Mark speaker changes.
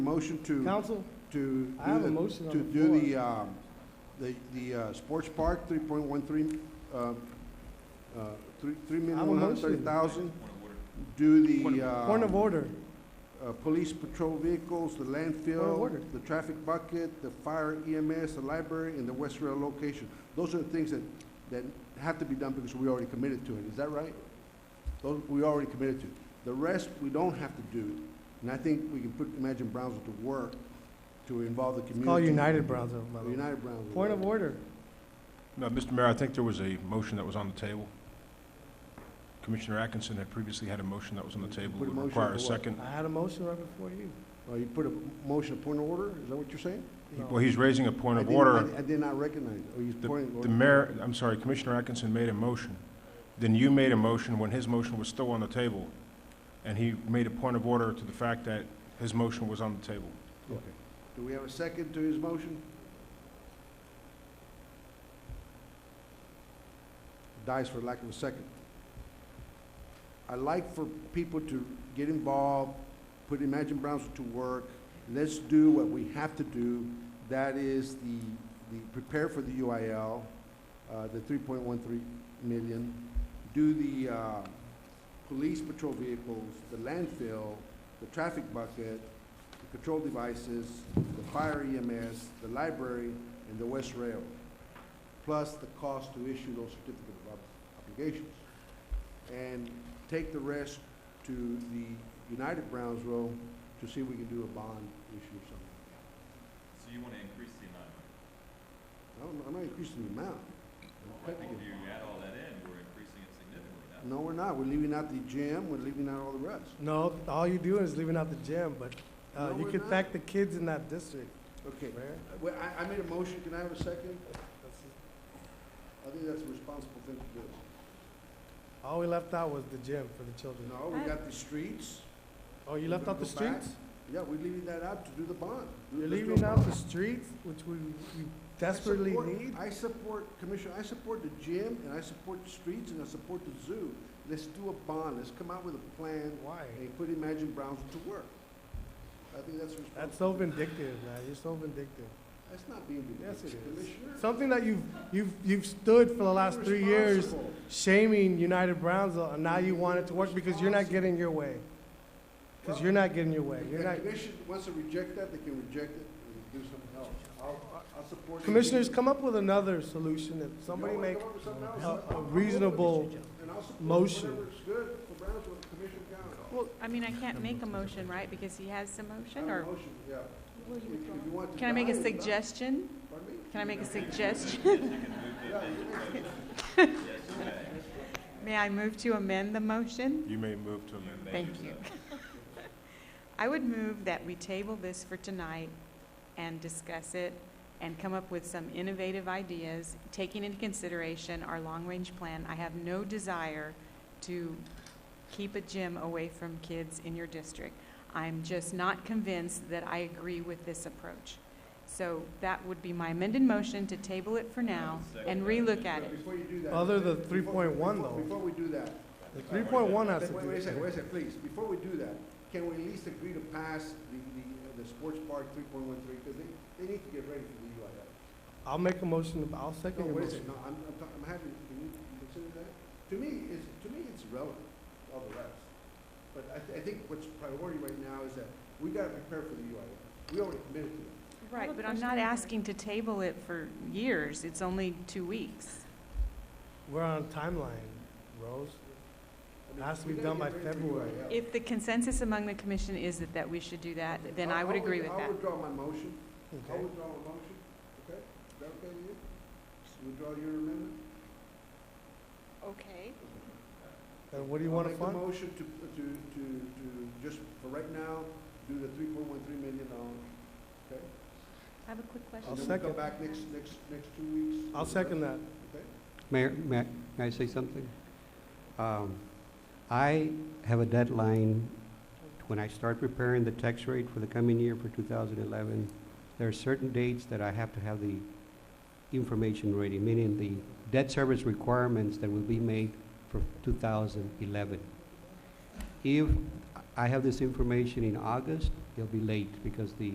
Speaker 1: Motion to,
Speaker 2: Council,
Speaker 1: to.
Speaker 2: I have
Speaker 1: do
Speaker 2: a
Speaker 1: the-
Speaker 2: motion on
Speaker 1: To
Speaker 2: the
Speaker 1: do
Speaker 2: floor.
Speaker 1: the, um, the, the, uh, sports park, three point one three, uh, uh, three, three
Speaker 2: I
Speaker 1: million
Speaker 2: have a
Speaker 1: one hundred thirty
Speaker 2: motion.
Speaker 1: thousand. Do the,
Speaker 2: point of
Speaker 1: uh,
Speaker 2: order.
Speaker 1: uh, police patrol vehicles, the
Speaker 2: order.
Speaker 1: landfill, the traffic bucket, the fire EMS, the library, and the West Rail location. Those are the things that, that have to be done because we already committed to it, is that right? Those, we already committed to. The rest, we don't have to do, and I think we can put Imagine Brownsville to work to involve the community.
Speaker 2: Call United Brownsville, by the way.
Speaker 1: United Brownsville.
Speaker 2: Point of order.
Speaker 3: No, Mr. Mayor, I think there was a motion that was on the table. Commissioner Atkinson had previously had a motion that was on the table.
Speaker 1: Put a
Speaker 3: It would
Speaker 1: motion
Speaker 3: require
Speaker 1: for
Speaker 3: a
Speaker 1: what?
Speaker 3: second.
Speaker 2: I had a motion right before you.
Speaker 1: Oh, you put a motion of point of order, is that what you're saying?
Speaker 2: No.
Speaker 3: Well, he's raising a point
Speaker 1: I
Speaker 3: of
Speaker 1: didn't-
Speaker 3: order.
Speaker 1: I I did not recognize, it. oh, he's
Speaker 3: The
Speaker 1: pointing.
Speaker 3: the mayor, I'm sorry, Commissioner Atkinson made a motion. Then you made a motion when his motion was still on the table. And he made a point of order to the fact that his motion was on the table.
Speaker 1: Okay. Do we have a second to his motion? Dies for lack of a second. I like for people to get involved, put Imagine Brownsville to work. Let's do what we have to do. That is the, the, prepare for the UIL, uh, the three point one three million. Do the, uh, police patrol vehicles, the landfill, the traffic bucket, the control devices, the fire EMS, the library, and the West Rail, plus the cost to issue those certificate of ob- obligations. And take the rest to the United Brownsville to see if we can do a bond issue or something.
Speaker 4: So you want to increase the amount?
Speaker 1: I don't, I'm not increasing the amount.
Speaker 4: I think if you add all that in, we're increasing it significantly now.
Speaker 1: No, we're not. We're leaving out the gym, we're leaving out all the rest.
Speaker 2: No, all you do is leaving out the gym, but uh,
Speaker 1: No,
Speaker 2: you
Speaker 1: we're
Speaker 2: can
Speaker 1: not.
Speaker 2: thank the kids in that district,
Speaker 1: Okay,
Speaker 2: Mayor.
Speaker 1: well, I, I made a motion, can I have a second? I think that's a responsible thing to do.
Speaker 2: All we left out was the gym for the children.
Speaker 1: No, we got the streets.
Speaker 2: Oh, you left out the
Speaker 1: We're gonna go
Speaker 2: streets?
Speaker 1: Yeah, we're leaving that out to do the bond. Do-
Speaker 2: You're
Speaker 1: let's do a
Speaker 2: leaving out
Speaker 1: bond.
Speaker 2: the streets, which we we
Speaker 1: I
Speaker 2: desperately
Speaker 1: support-
Speaker 2: need?
Speaker 1: I support, Commissioner, I support the gym, and I support the streets, and I support the zoo. Let's do a bond, let's come out with a plan,
Speaker 2: Why?
Speaker 1: and put Imagine Brownsville to work. I think that's responsible.
Speaker 2: That's so vindictive, man. You're so vindictive.
Speaker 1: That's not being
Speaker 2: Yes,
Speaker 1: ridiculous,
Speaker 2: it is.
Speaker 1: Commissioner.
Speaker 2: Something that you've, you've, you've stood for the last three years
Speaker 1: Irresponsible.
Speaker 2: shaming United Brownsville, and now you want it to work because you're not getting your way. Because you're not getting your way.
Speaker 1: If
Speaker 2: You're
Speaker 1: the
Speaker 2: not.
Speaker 1: commission wants to reject that, they can reject it and do something else. I'll, I'll support. it.
Speaker 2: Commissioners, come up with another solution. If
Speaker 1: You
Speaker 2: somebody
Speaker 1: wanna
Speaker 2: make
Speaker 1: come up with something else?
Speaker 2: a,
Speaker 1: I'll- I'll
Speaker 2: a
Speaker 1: come up with it.
Speaker 2: reasonable,
Speaker 1: And I'll support
Speaker 2: motion.
Speaker 1: whatever's good for Brownsville, Commissioner Gallo.
Speaker 5: Well, I mean, I can't make a motion, right, because he has the motion, or can I make a suggestion? Can I make a suggestion? May I move to amend the motion?
Speaker 3: You may move to amend.
Speaker 5: Thank you. I would move that we table this for tonight and discuss it and come up with some innovative ideas, taking into consideration our long-range plan. I have no desire to keep a gym away from kids in your district. I'm just not convinced that I agree with this approach. So that would be my amended motion to table it for now and relook at it.
Speaker 1: Before you do that.
Speaker 2: Other than
Speaker 1: before-
Speaker 2: 3.1
Speaker 1: before-
Speaker 2: though.
Speaker 1: Before we do that,
Speaker 2: the three point one has to
Speaker 1: wait, wait a second,
Speaker 2: do.
Speaker 1: wait a second, please, before we do that, can we at least agree to pass the, the, the sports park three point one three, because they, they need to get ready for the UIL.
Speaker 2: I'll make a motion, I'll
Speaker 1: No,
Speaker 2: second your
Speaker 1: oh, wait a
Speaker 2: motion.
Speaker 1: second, no, I'm, I'm, talking- I'm having, can you consider that? To me, it's, to me, it's relevant, all the rest. But I, th- I think what's priority right now is that we gotta prepare for the UIL. We already committed to it.
Speaker 5: Right, but I'm not asking to table it for years. It's only two weeks.
Speaker 2: We're on a timeline, Rose.
Speaker 1: I mean,
Speaker 2: Has to
Speaker 1: we
Speaker 2: be
Speaker 1: gotta
Speaker 2: done by
Speaker 1: get ready for the
Speaker 2: February.
Speaker 1: UIL.
Speaker 5: If the consensus among the commission is that, that we should do that, then Oh, I would
Speaker 1: I'll- I'll
Speaker 5: agree with
Speaker 1: with-
Speaker 5: that.
Speaker 1: I'll withdraw my motion. I'll
Speaker 2: Okay.
Speaker 1: withdraw my motion, okay? Is that okay with you? You Withdraw your amendment?
Speaker 5: Okay.
Speaker 2: And what do you want to
Speaker 1: I'll
Speaker 2: fund?
Speaker 1: make the motion to, to, to, to, just for right now, do the three point one three million dollars, okay?
Speaker 5: I have a quick question.
Speaker 2: I'll
Speaker 1: And then we'll
Speaker 2: second.
Speaker 1: come back next, next, next two weeks.
Speaker 2: I'll second that.
Speaker 1: Okay?
Speaker 6: Mayor, may I- may I say something? Um, I have a deadline when I start preparing the tax rate for the coming year for 2011. There are certain dates that I have to have the information ready, meaning the debt service requirements that will be made for 2011. If I have this information in August, they'll be late because the